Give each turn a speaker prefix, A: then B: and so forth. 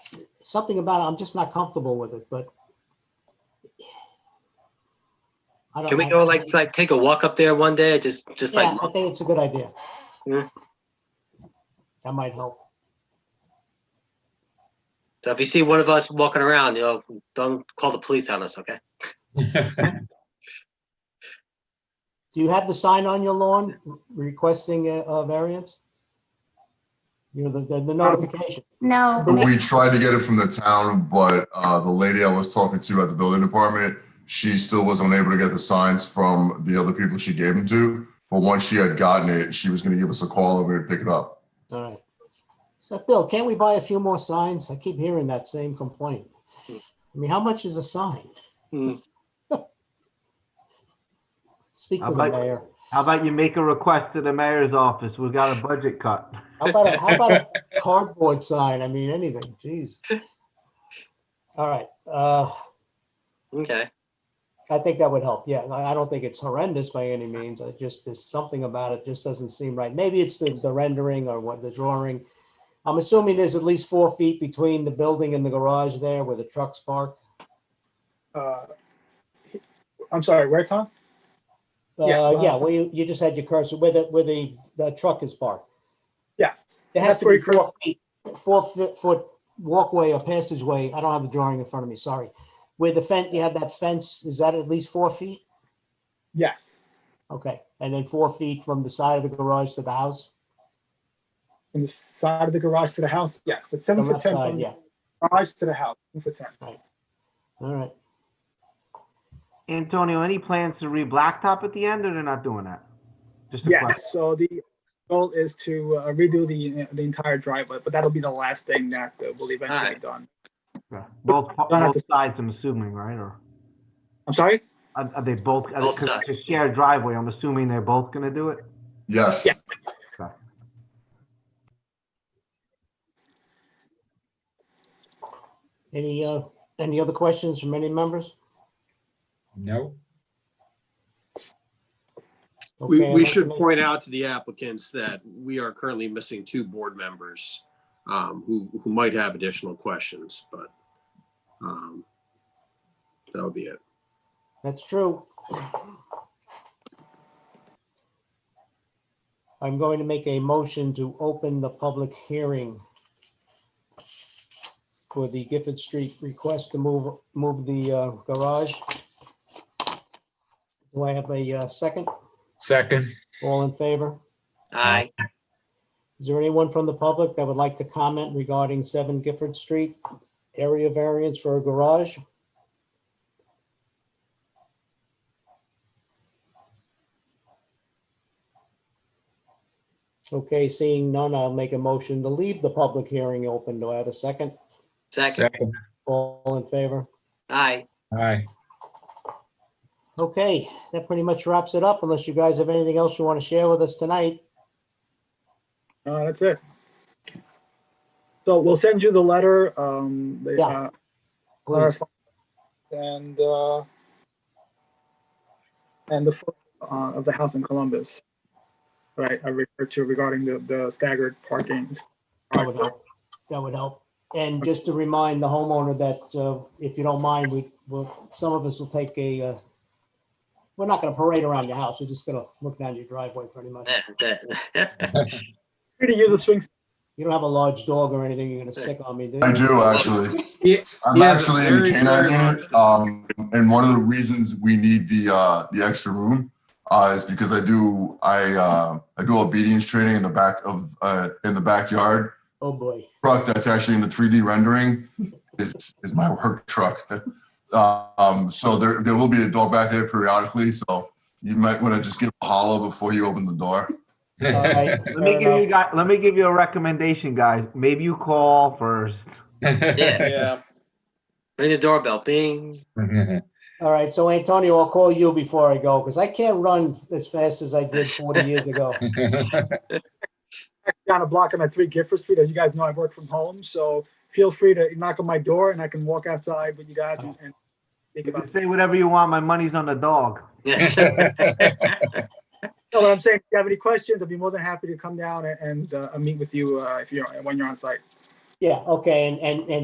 A: something about it, I'm just not comfortable with it, but. I don't
B: Can we
A: know.
B: go like, like take a walk up there one day? Just, just
A: Uh-huh. Yeah,
B: like,
A: I think it's a good idea.
B: Yeah.
A: That might help.
B: so if you see one of us walking around, you know, don't call the police on us, okay?
A: Do you have the sign on your lawn requesting a, a variance? You know, the- the,
B: Um,
A: the notification.
C: No,
D: We tried to get it from the town, but uh, the lady I was talking to at the building department, she still wasn't able to get the signs from the other people she gave them to. But once she had gotten it, she was going to give us a call and we would pick it up.
A: All right. So Bill, can't we buy a few more signs? I keep hearing that same complaint. I mean, how much is a sign?
B: Hmm.
A: Speak to
E: I'll
A: the
E: buy-
A: mayor.
E: How about you make a request to the mayor's office? We've got a budget cut.
A: How about, a- how about a cardboard sign? I mean, anything, Jeez. All right, uh,
B: Okay.
A: I think that would help. Yeah, I, I don't think it's horrendous by any means. I just, there's something about it just doesn't seem right. Maybe it's the, the rendering or what, the drawing. I'm assuming there's at least four feet between the building and the garage there where the trucks park.
F: Uh, I'm sorry, where, Tom? Yeah.
A: Uh, yeah, well, you, you just had your cursor where the, where the, the truck is parked.
F: Yeah.
A: There has
F: That's
A: to
F: where
A: be
F: your cursor-
A: four feet, four foot, foot walkway or passageway. I don't have the drawing in front of me, sorry. Where the fence, you have that fence, is that at least four feet?
F: Yes,
A: Okay, and then four feet from the side of the garage to the house?
F: from the side of the garage to the house, yes, it's
A: The
F: seven foot
A: left
F: ten
A: side,
F: from
A: yeah,
F: the garage to the house, seven foot ten.
A: all right.
E: Antonio, any plans to re-blacktop at the end or they're not doing that? Just a question.
F: Yes, so the goal is to uh, redo the, the entire driveway, but that'll be the last thing that uh, will eventually be
B: Alright.
F: done.
E: Yeah. Both,
F: Don't have
E: both
F: to-
E: sides, I'm assuming, right? Or
F: I'm sorry?
E: are are they both, are they-
B: Both
E: 'cause
B: sides.
E: it's a shared driveway. I'm assuming they're both gonna do it?
D: Yes.
F: Yeah.
A: Any, uh, any other questions from any members?
G: No,
H: We,
A: Okay,
H: we
A: I'd like
H: should
A: to make-
H: point out to the applicants that we are currently missing two board members um, who, who might have additional questions, but um, that'll be it.
A: That's true. I'm going to make a motion to open the public hearing for the Gifford Street request to move, move the uh, garage. Do I have a uh, second?
G: second.
A: All in favor?
B: Aye.
A: Is there anyone from the public that would like to comment regarding 7 Gifford Street? Area variance for a garage? Okay, seeing none, I'll make a motion to leave the public hearing open. Do I have a second?
B: Second.
G: Second.
A: All in favor?
B: Aye.
G: Aye.
A: Okay, that pretty much wraps it up unless you guys have anything else you want to share with us tonight.
F: Uh, that's it. So we'll send you the letter, um, the,
A: Yeah.
F: uh,
A: Please.
F: clarify, and, uh, and the, photo, uh, of the house in Columbus. Right, I referred to regarding the, the staggered parkings.
A: That would help. That would help. And just to remind the homeowner that uh, if you don't mind, we will, some of us will take a, uh, we're not going to parade around your house. We're just going to look down your driveway pretty much.
F: Free to use a swing
A: You don't have a large dog or anything. You're going to sick on me, do
D: I
A: you?
D: do actually.
H: Yeah,
D: I'm
H: yeah,
D: actually in the
H: very,
D: canine
H: very
D: unit.
H: large.
D: Um, and one of the reasons we need the, uh, the extra room, uh, is because I do, I, uh, I do obedience training in the back of, uh, in the backyard.
A: Oh, boy.
D: truck that's actually in the 3D rendering is is my work truck. um, so there there will be a dog back there periodically. So you might want to just give a holler before you open the door.
A: All right.
E: Let me
A: fair
E: give you
A: enough.
E: guys, let me give you a recommendation, guys. Maybe you call first.
H: Yeah.
B: Ring the doorbell, bing.
A: All right. So Antonio, I'll call you before I go because I can't run as fast as I did 40 years ago.
F: down a block on at three Gifford Street. As you guys know, I work from home, so feel free to knock on my door and I can walk outside with you guys and, and think
E: You
F: about.
E: can Say whatever you want. My money's on the dog.
B: Yes.
F: No, what I'm saying, if you have any questions, I'd be more than happy to come down and, and uh, meet with you uh, if you're when you're on site.
A: Yeah, okay. And, and, and